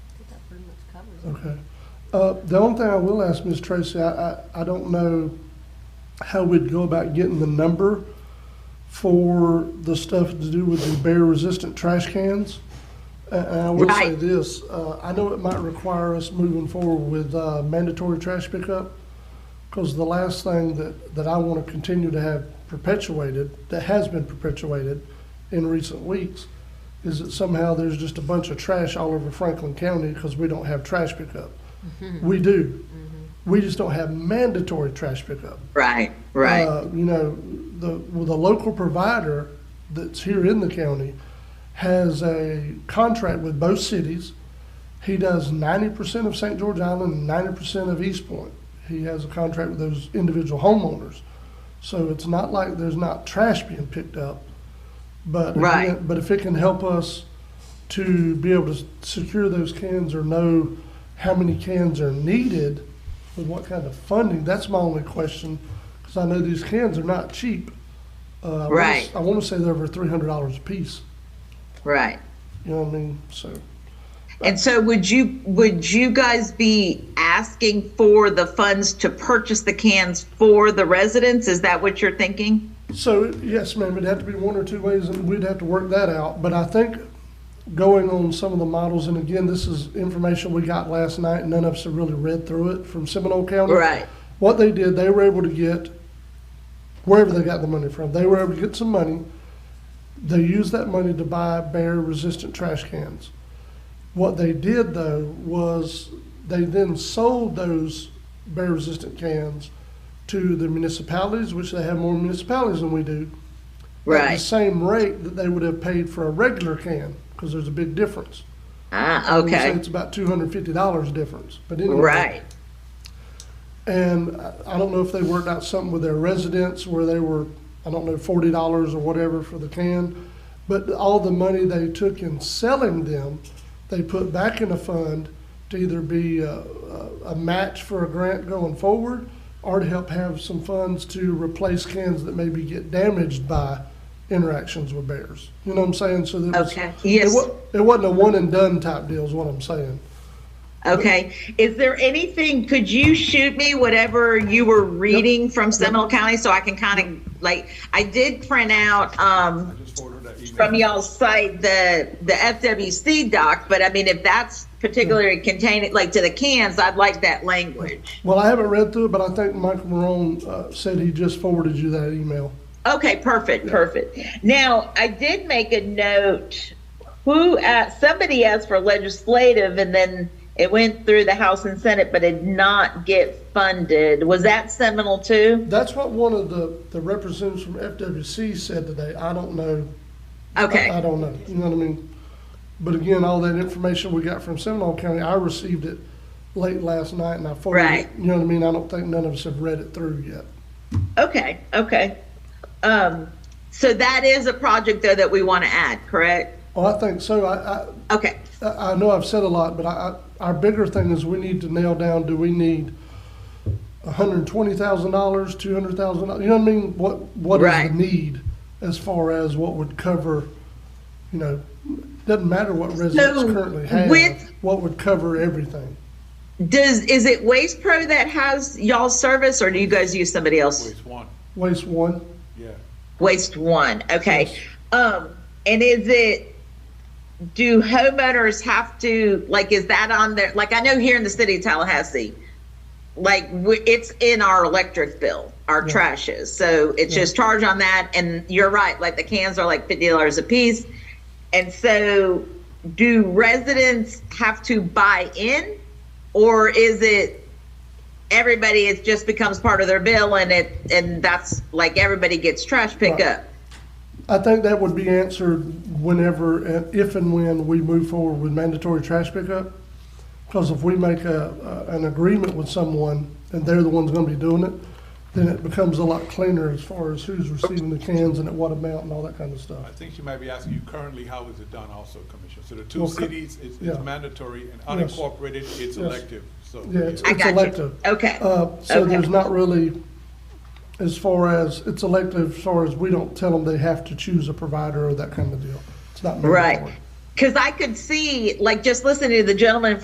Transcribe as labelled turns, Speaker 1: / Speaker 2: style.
Speaker 1: covers it.
Speaker 2: Okay. Uh, The only thing I will ask Ms. Tracy, I, I, I don't know how we'd go about getting the number for the stuff to do with the bear-resistant trash cans. A- And I will say
Speaker 3: Right.
Speaker 2: this, uh, I know it might require us moving forward with uh, mandatory trash pickup, because the last thing that, that I want to continue to have perpetuated, that has been perpetuated in recent weeks, is that somehow there's just a bunch of trash all over Franklin County because we don't have trash pickup. We do. We just don't have mandatory trash pickup.
Speaker 3: Right, right.
Speaker 2: Uh, you know, the, well, the local provider that's here in the county has a contract with both cities. He does ninety percent of St. George Island and ninety percent of East Point. He has a contract with those individual homeowners. So it's not like there's not trash being picked up. But,
Speaker 3: Right.
Speaker 2: again- but if it can help us to be able to s- secure those cans or know how many cans are needed with what kind of funding, that's my only question. Because I know these cans are not cheap. Uh, I wanna s-
Speaker 3: Right.
Speaker 2: I want to say they're over three hundred dollars a piece.
Speaker 3: Right.
Speaker 2: You know what I mean? So.
Speaker 3: And so would you, would you guys be asking for the funds to purchase the cans for the residents? Is that what you're thinking?
Speaker 2: So, yes, ma'am, it'd have to be one or two ways, and we'd have to work that out. But I think going on some of the models, and again, this is information we got last night, none of us have really read through it from Seminole County.
Speaker 3: Right.
Speaker 2: What they did, they were able to get, wherever they got the money from, they were able to get some money. They used that money to buy bear-resistant trash cans. What they did, though, was they then sold those bear-resistant cans to the municipalities, which they have more municipalities than we do at the
Speaker 3: Right.
Speaker 2: same rate that they would have paid for a regular can, because there's a big difference.
Speaker 3: Ah,
Speaker 2: We say
Speaker 3: okay.
Speaker 2: It's about two hundred and fifty dollars difference, but anyway.
Speaker 3: Right.
Speaker 2: And I I don't know if they worked out something with their residents where they were, I don't know, forty dollars or whatever for the can. But all the money they took in selling them, they put back in a fund to either be a, a, a match for a grant going forward or to help have some funds to replace cans that maybe get damaged by interactions with bears. You know what I'm saying? So that was-
Speaker 3: Okay.
Speaker 2: It
Speaker 3: Yes.
Speaker 2: wa- it wasn't a one and done type deal is what I'm saying.
Speaker 3: Okay. Is there anything, could you shoot me whatever you were reading from Seminole County so I can kind of, like, I did print out, um,
Speaker 4: Just forwarded that email.
Speaker 3: from y'all's site, the, the FWC doc, but I mean, if that's particularly
Speaker 4: Hmm.
Speaker 3: contained, like to the cans, I'd like that language.
Speaker 2: Well, I haven't read through it, but I think Michael Marone uh, said he just forwarded you that email.
Speaker 3: Okay, perfect, perfect. Now, I did make a note, who, uh, somebody asked for legislative and then it went through the House and Senate, but it did not get funded. Was that Seminole too?
Speaker 2: That's what one of the, the representatives from FWC said today. I don't know.
Speaker 3: Okay.
Speaker 2: I, I don't know. You know what I mean? But again, all that information we got from Seminole County, I received it late last night and I forwarded it.
Speaker 3: Right.
Speaker 2: You know what I mean? I don't think none of us have read it through yet.
Speaker 3: Okay, okay. Um, so that is a project though that we want to add, correct?
Speaker 2: Well, I think so. I, I,
Speaker 3: Okay,
Speaker 2: I I know I've said a lot, but I, I, our bigger thing is we need to nail down, do we need hundred and twenty thousand dollars, two hundred thousand, dollars? you know what I mean? What, what is the
Speaker 3: Right.
Speaker 2: need as far as what would cover, you know, doesn't matter what residents
Speaker 3: So,
Speaker 2: currently have,
Speaker 3: with-
Speaker 2: what would cover everything?
Speaker 3: does, is it Waste Pro that has y'all's service or do you guys use somebody else?
Speaker 4: Waste one,
Speaker 2: Waste one,
Speaker 4: yeah.
Speaker 3: Waste One, okay. Um, and is it, do homeowners have to, like, is that on there? Like, I know here in the city of Tallahassee, like, we- it's in our electric bill, our trash is. So it's just charged on that. And you're right, like, the cans are like $50 a piece. And so do residents have to buy in? Or is it everybody, it just becomes part of their bill and it, and that's like everybody gets trash pickup?
Speaker 2: I think that would be answered whenever, and if and when we move forward with mandatory trash pickup. Because if we make a, a- an agreement with someone and they're the ones gonna be doing it, then it becomes a lot cleaner as far as who's receiving the cans and at what amount and all that kind of
Speaker 4: I
Speaker 2: stuff.
Speaker 4: think she might be asking you currently, how is it done also, Commissioner? So the two
Speaker 2: Well, co-
Speaker 4: cities, it's
Speaker 2: yeah.
Speaker 4: it's mandatory and unincorporated, it's elective, so.
Speaker 2: Yeah, it's
Speaker 3: I
Speaker 2: it's
Speaker 3: got you.
Speaker 2: elective.
Speaker 3: Okay.
Speaker 2: Uh, so
Speaker 3: Okay.
Speaker 2: there's not really, as far as, it's elective, as far as we don't tell them they have to choose a provider or that kind of deal. It's not mandatory.
Speaker 3: Right. Because I could see, like, just listening to the gentleman